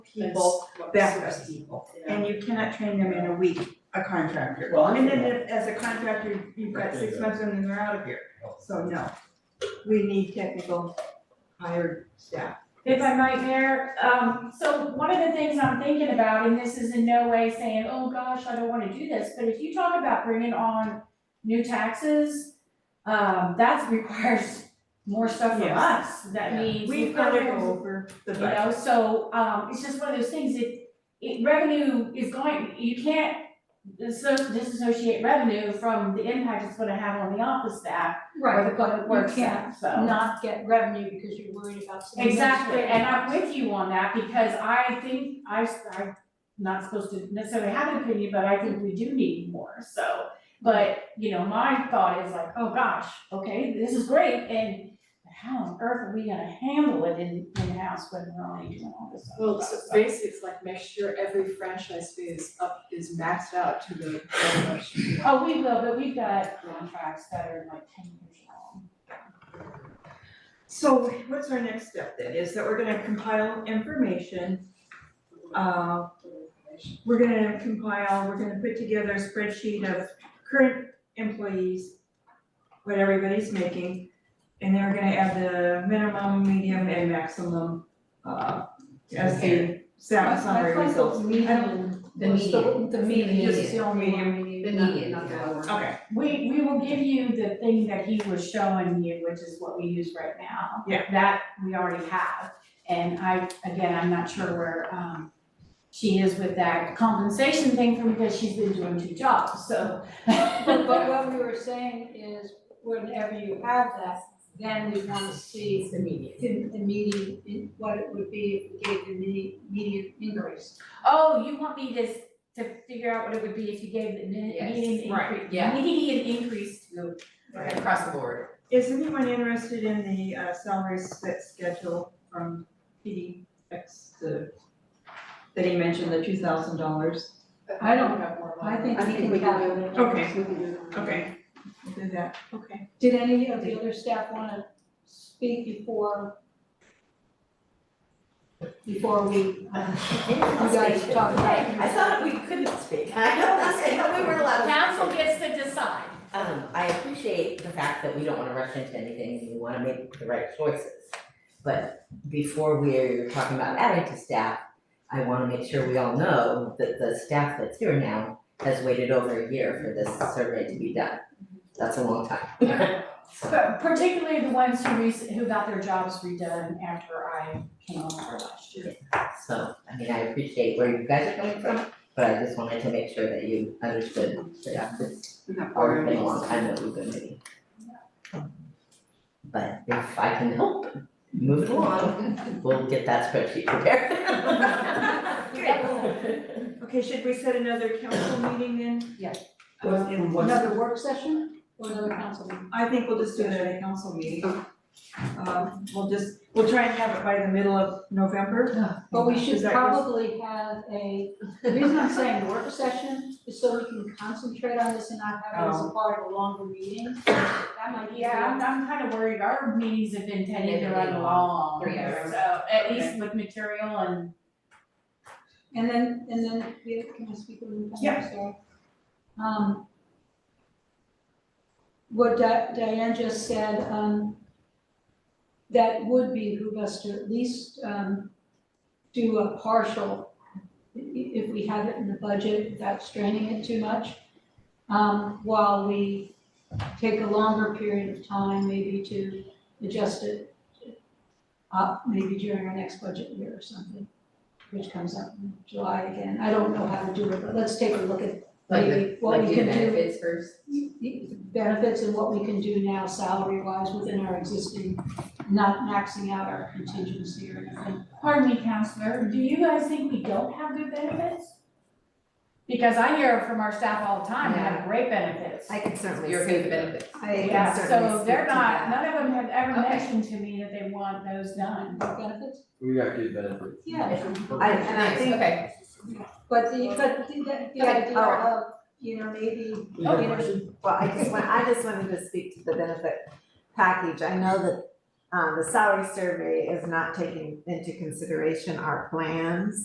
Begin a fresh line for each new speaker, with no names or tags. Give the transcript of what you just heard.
people, backwards.
Source people.
and you cannot train them in a week, a contractor.
Well,
I mean, and if- as a contractor, you've got six months and then they're out of here, so no.
We need technical hired staff.
If I might, Mayor, um, so one of the things I'm thinking about, and this is in no way saying, oh gosh, I don't wanna do this, but if you talk about bringing on new taxes, um, that requires more stuff from
Yes.
us, that means.
We've got
got
to go over the
You
budget.
know, so, um, it's just one of those things, it, it, revenue is going, you can't disso- disassociate revenue from the impact it's gonna have on the office staff or the
Right,
public
but
works
you can't
staff, so.
not get revenue because you're worried about some
Exactly,
administrative
and I'm
costs.
with you on that because I think I, I'm not supposed to necessarily have an opinion, but I think we do need more, so. But, you know, my thought is like, oh gosh, okay, this is great and how on earth are we gonna handle it in, in-house when we're already doing all this
Well,
other
so
stuff?
basically, it's like make sure every franchise fee is up, is maxed out to the very much.
Oh, we will, but we've got contracts that are like ten years long.
So what's our next step then, is that we're gonna compile information. Uh, we're gonna compile, we're gonna put together a spreadsheet of current employees, what everybody's making, and then we're gonna add the minimum, medium, and maximum, uh, as the
I-
sa- salary
I thought
results.
the
I
median
The
was
median.
the, the median is
median.
the only one we
The
need, not
median, not the lower.
Okay,
We, we will give you the thing that he was showing you, which is what we use right now.
Yeah.
That we already have, and I, again, I'm not sure where, um, she is with that compensation thing from, because she's been doing two jobs, so.
But, but what we were saying is, whenever you have that, then we wanna see
It's the median.
the, the median, in- what it would be if we gave the medi- median increase.
Oh, you want me to, s- to figure out what it would be if you gave the min-
Yes,
median
right,
increase?
yeah.
Median increase to,
Across the board.
is anyone interested in the uh, salary set schedule from PDX, the, that he mentioned, the two thousand dollars?
I don't-
have more
I
money.
think
I
we
think
can
we can
cap
do
it.
it.
Okay.
We can do it.
Okay, we'll do that, okay.
Did any of the other staff wanna speak before? Before we, uh, you guys talk about it?
I thought we couldn't speak. I know, I thought we weren't allowed to.
council gets to decide.
Um, I appreciate the fact that we don't wanna rush into anything, and we wanna make the right choices. But before we're talking about adding to staff, I wanna make sure we all know that the staff that's here now has waited over a year for this survey to be done. That's a long time.
But particularly the ones who rec- who got their jobs redone after I came on board last year.
So, I mean, I appreciate where you guys are coming from, but I just wanted to make sure that you understood that after
We have
or been a
priorities.
long time that we've been meeting. But if I can help move it along, we'll get that spreadsheet prepared.
Okay, should we set another council meeting then?
Yes.
Well, in what-
Another work session or another council meeting?
I think we'll just do it at a council meeting. Um, we'll just, we'll try and have it by the middle of November.
But we
Is
should
that your-
probably have a, the reason I'm saying work session is so we can concentrate on this and not have it as a part of a longer meeting. That might be.
Yeah, I'm, I'm kind of worried, our meetings have been tending to run long,
Three hours.
so at least with material and.
And then, and then, yeah, can I speak a little bit?
Yeah.
Sorry. Um. What Di- Diane just said, um, that would behoove us to at least, um, do a partial. i- i- If we have it in the budget without straining it too much, um, while we take a longer period of time maybe to adjust it. Uh, maybe during our next budget year or something which comes up in July again. I don't know how to do it, but let's take a look at
Like the-
maybe what we can
Like do
do.
benefits first.
Benefits and what we can do now salary wise within our existing, not maxing out our contingency or anything.
Pardon me, counselor, do you guys think we don't have good benefits? Because I hear from our staff all the time, they have great benefits.
I can certainly.
You're
You're
okay
okay
with
benefits.
I can
Yeah,
certainly
so
speak
they're
to
not,
that.
none of them have ever
Okay.
mentioned to me that they want those done.
Benefits,
We got good benefits.
yeah,
Perfect.
I, and I think
Okay.
but the, but the, the the
Okay,
idea
all
of, you know, maybe,
You have a
oh,
Okay.
question?
Well, I just want, I just wanted to speak to the benefit package. I know that, um, the salary survey is not taking into consideration our plans.